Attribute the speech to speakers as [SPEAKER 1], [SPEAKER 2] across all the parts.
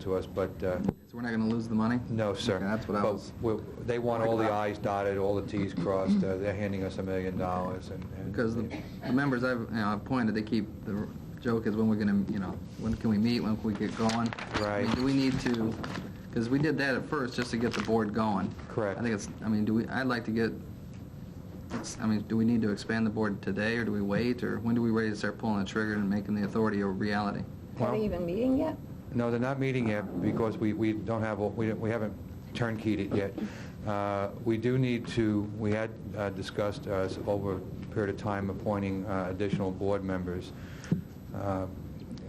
[SPEAKER 1] to us, but uh,
[SPEAKER 2] So we're not going to lose the money?
[SPEAKER 1] no, sir.
[SPEAKER 2] Okay, That's what I
[SPEAKER 1] But
[SPEAKER 2] was,
[SPEAKER 1] we- They want all the i's dotted, all the t's crossed. Uh, They're handing us a million dollars and... and-
[SPEAKER 2] because the the members I've, you know, I've pointed, they keep, the joke is when we're going to, you know, when can we meet, when can we get going? I mean,
[SPEAKER 1] Right.
[SPEAKER 2] Do we need to, because we did that at first just to get the board going.
[SPEAKER 1] Correct.
[SPEAKER 2] I think it's, I mean, do we, I'd like to get, it's- I mean, do we need to expand the board today, or do we wait, or when do we ready to start pulling the trigger and making the authority a reality?
[SPEAKER 1] Well-
[SPEAKER 3] Are they even meeting yet?
[SPEAKER 1] No, they're not meeting yet because we, we don't have, a- we don't- we haven't turnkeyed it yet. Uh, We do need to, we had uh, discussed uh, over a period of time appointing uh, additional board members. Uh,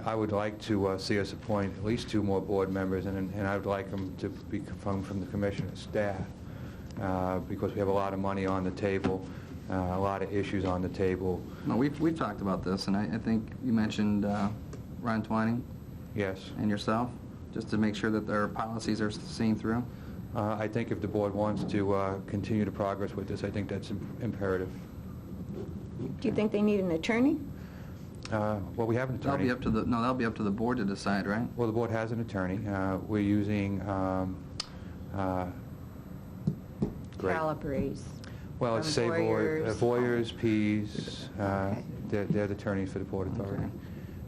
[SPEAKER 1] I would like to uh, see us appoint at least two more board members and and I would like them to be from, from the commissioner's staff uh, because we have a lot of money on the table, uh, a lot of issues on the table.
[SPEAKER 2] No, we've, we've talked about this, and I, I think you mentioned uh, Ron Twining
[SPEAKER 1] Yes.
[SPEAKER 2] and yourself, just to make sure that their policies are seen through.
[SPEAKER 1] Uh, I think if the board wants to uh, continue to progress with this, I think that's im- imperative.
[SPEAKER 3] Do you think they need an attorney?
[SPEAKER 1] Uh, Well, we have an
[SPEAKER 2] That'll be
[SPEAKER 1] attorney.
[SPEAKER 2] up to the, no, that'll be up to the board to decide, right?
[SPEAKER 1] Well, the board has an attorney. Uh, We're using, um, uh, great.
[SPEAKER 4] Calabrese.
[SPEAKER 1] well,
[SPEAKER 2] um,
[SPEAKER 1] it's
[SPEAKER 4] from
[SPEAKER 1] Savoy, uh,
[SPEAKER 4] Voyeurs.
[SPEAKER 1] Voyeurs, Pease, uh,
[SPEAKER 4] Okay.
[SPEAKER 1] they're they're the attorneys for the Port Authority.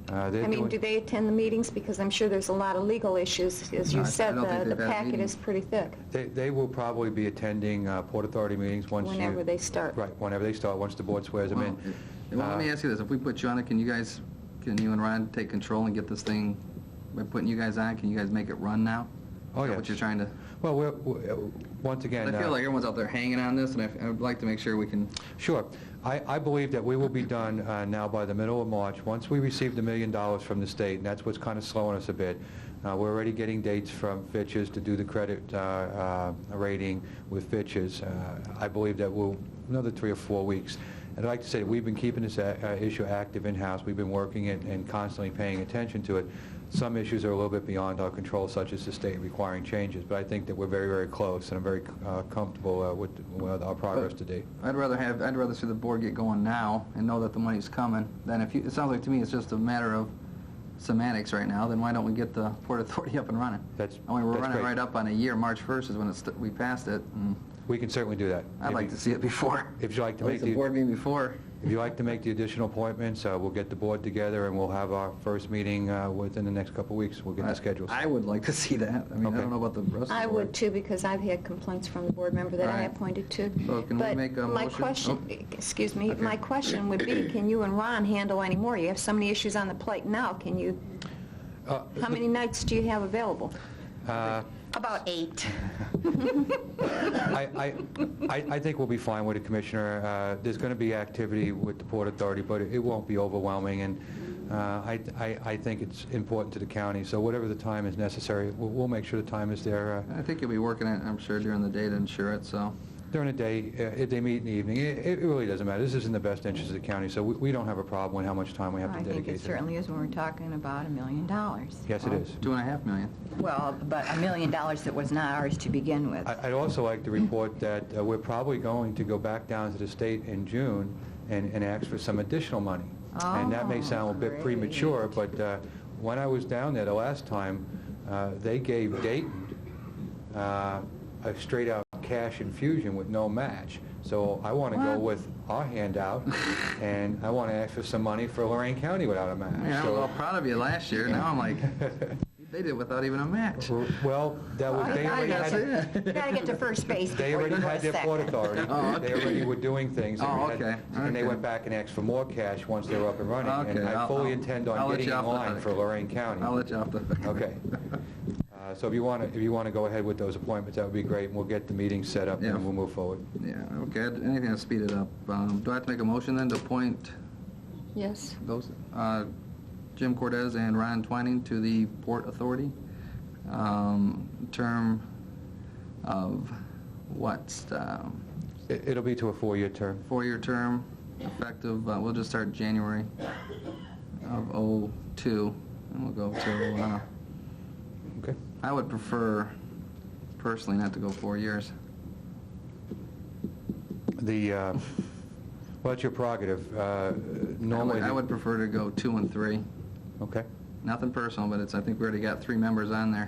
[SPEAKER 1] Uh, they're
[SPEAKER 3] I mean,
[SPEAKER 1] doing-
[SPEAKER 3] do they attend the meetings? Because I'm sure there's a lot of legal issues. As
[SPEAKER 2] No, I-
[SPEAKER 3] you
[SPEAKER 2] I
[SPEAKER 3] said,
[SPEAKER 2] don't think
[SPEAKER 3] the the
[SPEAKER 2] they've had
[SPEAKER 3] packet
[SPEAKER 2] meetings.
[SPEAKER 3] is pretty thick.
[SPEAKER 1] They they will probably be attending uh, Port Authority meetings once you...
[SPEAKER 3] Whenever they start.
[SPEAKER 1] Right, whenever they start, once the board swears them
[SPEAKER 2] Well,
[SPEAKER 1] in.
[SPEAKER 2] well, let me
[SPEAKER 1] Uh,
[SPEAKER 2] ask you this, if we put you on it, can you guys, can you and Ron take control and get this thing, by putting you guys on, it, can you guys make it run now?
[SPEAKER 1] Oh,
[SPEAKER 2] Is that
[SPEAKER 1] yes.
[SPEAKER 2] what you're trying to,
[SPEAKER 1] Well, we're- we're- once
[SPEAKER 2] I
[SPEAKER 1] again...
[SPEAKER 2] feel
[SPEAKER 1] uh,
[SPEAKER 2] like everyone's out there hanging on this, and I- I'd like to make sure we can,
[SPEAKER 1] Sure. I I believe that we will be done uh, now by the middle of March, once we receive the million dollars from the state, and that's what's kind of slowing us a bit. Uh, We're already getting dates from Fitch's to do the credit uh, uh, rating with Fitch's. Uh, I believe that we'll, another three or four weeks. And I'd like to say that we've been keeping this a- uh, issue active in-house. We've been working it and constantly paying attention to it. Some issues are a little bit beyond our control, such as the state requiring changes, but I think that we're very, very close, and I'm very uh, comfortable uh, with with our progress to date.
[SPEAKER 2] I'd rather have, I'd rather see the board get going now and know that the money's coming, than if you, it sounds like to me it's just a matter of semantics right now, then why don't we get the Port Authority up and running?
[SPEAKER 1] That's-
[SPEAKER 2] I mean, we're
[SPEAKER 1] that's
[SPEAKER 2] running
[SPEAKER 1] great.
[SPEAKER 2] right up on a year, March 1st is when it's, we passed it, and
[SPEAKER 1] We can certainly do that.
[SPEAKER 2] I'd like to see it before.
[SPEAKER 1] If you like to
[SPEAKER 2] At
[SPEAKER 1] make
[SPEAKER 2] least the
[SPEAKER 1] the-
[SPEAKER 2] board meeting before.
[SPEAKER 1] If you like to make the additional appointments, uh, we'll get the board together, and we'll have our first meeting uh, within the next couple of weeks. We'll get the schedules.
[SPEAKER 2] I would like to see that. I mean, I
[SPEAKER 1] Okay.
[SPEAKER 2] don't know about the rest of the
[SPEAKER 3] I
[SPEAKER 2] board.
[SPEAKER 3] would too, because I've had complaints from the board member that I
[SPEAKER 2] Right.
[SPEAKER 3] appointed to.
[SPEAKER 2] So can we make a
[SPEAKER 3] But my
[SPEAKER 2] motion? Oh.
[SPEAKER 3] question, excuse me, my question would be, can you and Ron handle any more? You have so many issues on the plate now, can you,
[SPEAKER 1] Uh,
[SPEAKER 3] how many nights do you have available?
[SPEAKER 1] uh,
[SPEAKER 4] About eight.
[SPEAKER 1] I I- I- I think we'll be fine with it, Commissioner. Uh, There's going to be activity with the Port Authority, but it won't be overwhelming, and uh, I I- I think it's important to the county, so whatever the time is necessary, we'll we'll make sure the time is there. uh,
[SPEAKER 2] I think you'll be working it, I'm sure, during the day to ensure it, so.
[SPEAKER 1] During the day, uh, if they meet in the evening, it it really doesn't matter. This is in the best interest of the county, so we- we don't have a problem with how much time we have
[SPEAKER 4] I
[SPEAKER 1] to
[SPEAKER 4] think
[SPEAKER 1] dedicate
[SPEAKER 4] it
[SPEAKER 1] to them.
[SPEAKER 4] certainly is when we're talking about a million dollars.
[SPEAKER 1] Yes, it is.
[SPEAKER 2] Two and a half million.
[SPEAKER 4] Well, but a million dollars that was not ours to begin with.
[SPEAKER 1] I- I'd also like to report that uh, we're probably going to go back down to the state in June and and ask for some additional money. And that may
[SPEAKER 4] Oh,
[SPEAKER 1] sound a bit
[SPEAKER 4] great.
[SPEAKER 1] premature, but uh, when I was down there the last time, uh, they gave Dayton uh, a straight-out cash infusion with no match. So I want to go
[SPEAKER 4] Wow.
[SPEAKER 1] with our handout, and I want to ask for some money for Lorraine County without a match.
[SPEAKER 2] Man, I was
[SPEAKER 1] So-
[SPEAKER 2] all proud of you last year, now I'm like, they did it without even a match.
[SPEAKER 1] Well, that was, they already
[SPEAKER 4] I
[SPEAKER 1] had...
[SPEAKER 4] gotta You gotta get to first base before
[SPEAKER 1] They
[SPEAKER 4] you
[SPEAKER 1] already
[SPEAKER 4] go to
[SPEAKER 1] had their port
[SPEAKER 4] second.
[SPEAKER 1] authority.
[SPEAKER 2] Oh,
[SPEAKER 1] They
[SPEAKER 2] okay.
[SPEAKER 1] already were doing things. They
[SPEAKER 2] Oh,
[SPEAKER 1] had-
[SPEAKER 2] okay.
[SPEAKER 1] And they
[SPEAKER 2] Okay.
[SPEAKER 1] went back and asked for more cash once they were up and running. And
[SPEAKER 2] Okay,
[SPEAKER 1] I
[SPEAKER 2] I'll-
[SPEAKER 1] fully
[SPEAKER 2] I'll-
[SPEAKER 1] intend
[SPEAKER 2] I'll
[SPEAKER 1] on
[SPEAKER 2] let
[SPEAKER 1] getting
[SPEAKER 2] you
[SPEAKER 1] in
[SPEAKER 2] off the
[SPEAKER 1] line
[SPEAKER 2] hook.
[SPEAKER 1] for Lorraine County.
[SPEAKER 2] I'll let you off the hook.
[SPEAKER 1] Okay. Uh, So if you want to, if you want to go ahead with those appointments, that would be great, and we'll get the meeting set up,
[SPEAKER 2] Yeah.
[SPEAKER 1] and we'll move forward.
[SPEAKER 2] Yeah, okay, anything to speed it up. Um, Do I have to make a motion then to appoint
[SPEAKER 3] Yes.
[SPEAKER 2] those, uh, Jim Cortez and Ryan Twining to the Port Authority? Um, Term of what? Um,
[SPEAKER 1] It- It'll be to a four-year term.
[SPEAKER 2] Four-year term, effective, uh, we'll just start January of '02, and we'll go to, uh,
[SPEAKER 1] Okay?
[SPEAKER 2] I would prefer personally not to go four years.
[SPEAKER 1] The, uh, well, it's your prerogative. Uh, Normally...
[SPEAKER 2] I would- I would prefer to go two and three.
[SPEAKER 1] Okay.
[SPEAKER 2] Nothing personal, but it's, I think we already got three members on there.